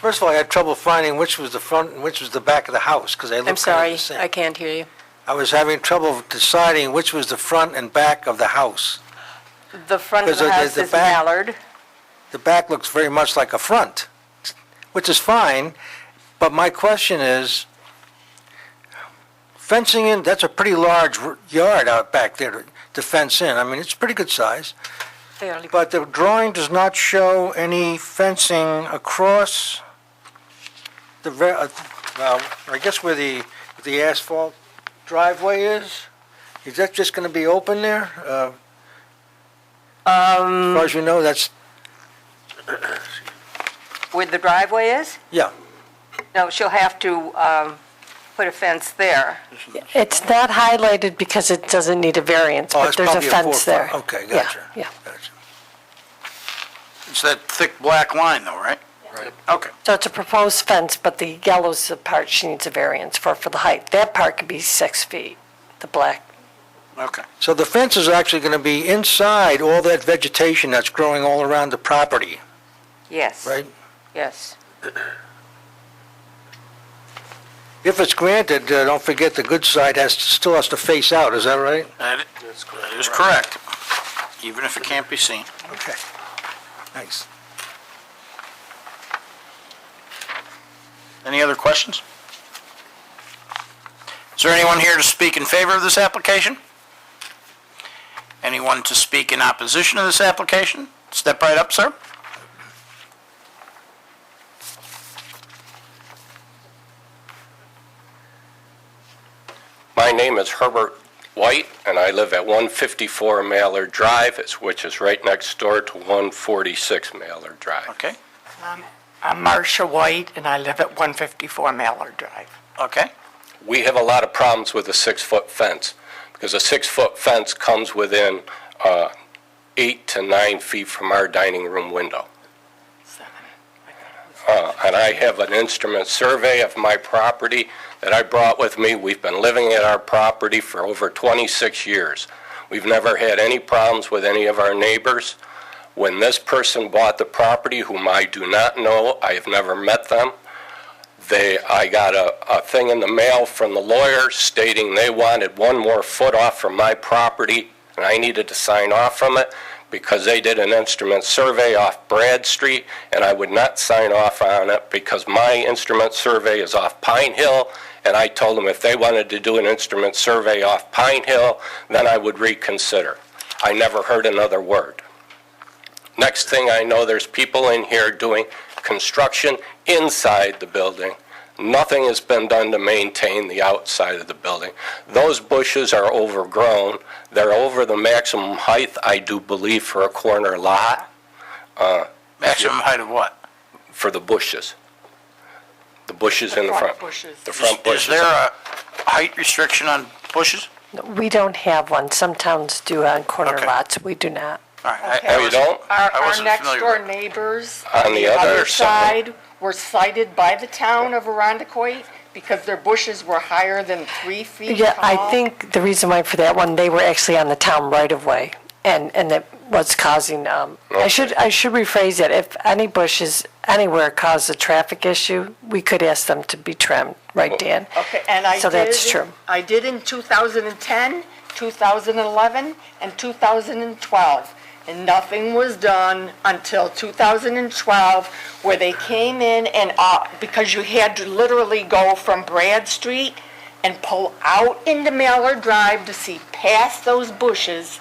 First of all, I had trouble finding which was the front and which was the back of the house, because they I'm look kind sorry, of the same. I can't hear you. I was having trouble deciding which was the front and back of the house. The front of Because the there's house the is back- Mallard. The back looks very much like a front, which is fine, but my question is, fencing in, that's a pretty large r- yard out back there to- to fence in. I mean, it's pretty good size. Fairly- But the drawing does not show any fencing across the, ve- uh, well, I guess where the, the asphalt driveway is? Is that just going to be open there? Uh, As Um, far as you know, that's, where the driveway is? yeah. No, she'll have to, um, put a fence there. It's not highlighted because it doesn't need a variance, Oh, but it's there's a probably four fence foot. there. Okay, Yeah, gotcha. Yeah, Gotcha. It's that thick black line though, right? Right. Okay. so it's a proposed fence, but the yellow's the part she needs a variance for, for the height. That part could be six feet, the black. Okay. So the fence is actually going to be inside all that vegetation that's growing all around the property, Yes. right? Yes. If it's granted, uh, don't forget the good side has, still has to face out, is that right? That i- that is correct, even if it can't be seen. Okay. Thanks. Any other questions? Is there anyone here to speak in favor of this application? Anyone to speak in opposition to this application? Step right up, sir. My name is Herbert White, and I live at 154 Mallard Drive, it's- which is right next door to 146 Mallard Drive. Okay, I'm Marcia White, and I live at 154 Mallard Drive. okay. We have a lot of problems with a six-foot fence, because a six-foot fence comes within uh, eight to nine feet from our dining room window. Uh, And I have an instrument survey of my property that I brought with me. We've been living at our property for over 26 years. We've never had any problems with any of our neighbors. When this person bought the property, whom I do not know, I have never met them, they, I got a, a thing in the mail from the lawyer stating they wanted one more foot off from my property, and I needed to sign off from it because they did an instrument survey off Brad Street, and I would not sign off on it because my instrument survey is off Pine Hill, and I told them if they wanted to do an instrument survey off Pine Hill, then I would reconsider. I never heard another word. Next thing I know, there's people in here doing construction inside the building. Nothing has been done to maintain the outside of the building. Those bushes are overgrown. They're over the maximum height, I do believe, for a corner lot Maximum height of what? for the bushes. The bushes in the front. bushes. The Is front is bushes. there a height restriction on bushes? We don't have one. Some towns do on corner Okay. lots. We do not. All right. I- I Oh, you wasn't- don't? Our, I our wasn't next familiar door with- neighbors. On the other side. side were cited by the town of Arundecoyt because their bushes were higher than three feet Yeah, I tall. think the reason why for that one, they were actually on the town right of way, and, and that was causing, um, I should, I should rephrase that, if any bushes anywhere cause a traffic issue, we could ask them to be trimmed, right, Dan? Okay, and I did. So that's it in- true. I did in 2010, 2011, and 2012. And nothing was done until 2012, where they came in and, uh, because you had to literally go from Brad Street and pull out into Mallard Drive to see past those bushes.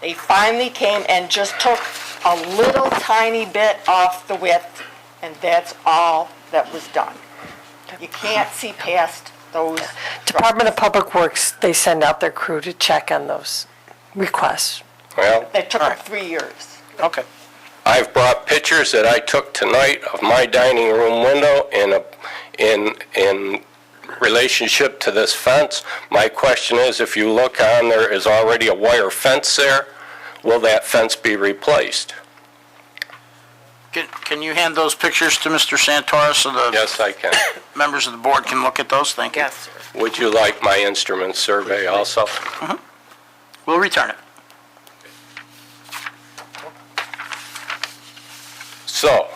They finally came and just took a little tiny bit off the width, and that's all that was done. You can't see past those. Department of Public Works, they send out their crew to check on those requests. Well, That took them three years. Okay. I've brought pictures that I took tonight of my dining room window in a, in, in relationship to this fence. My question is, if you look on, there is already a wire fence there. Will that fence be replaced? Can, can you hand those pictures to Mr. Santora so the Yes, I can. members of the board can look at those? Thank you. sir. Would you like my instrument survey also? We'll return it. So,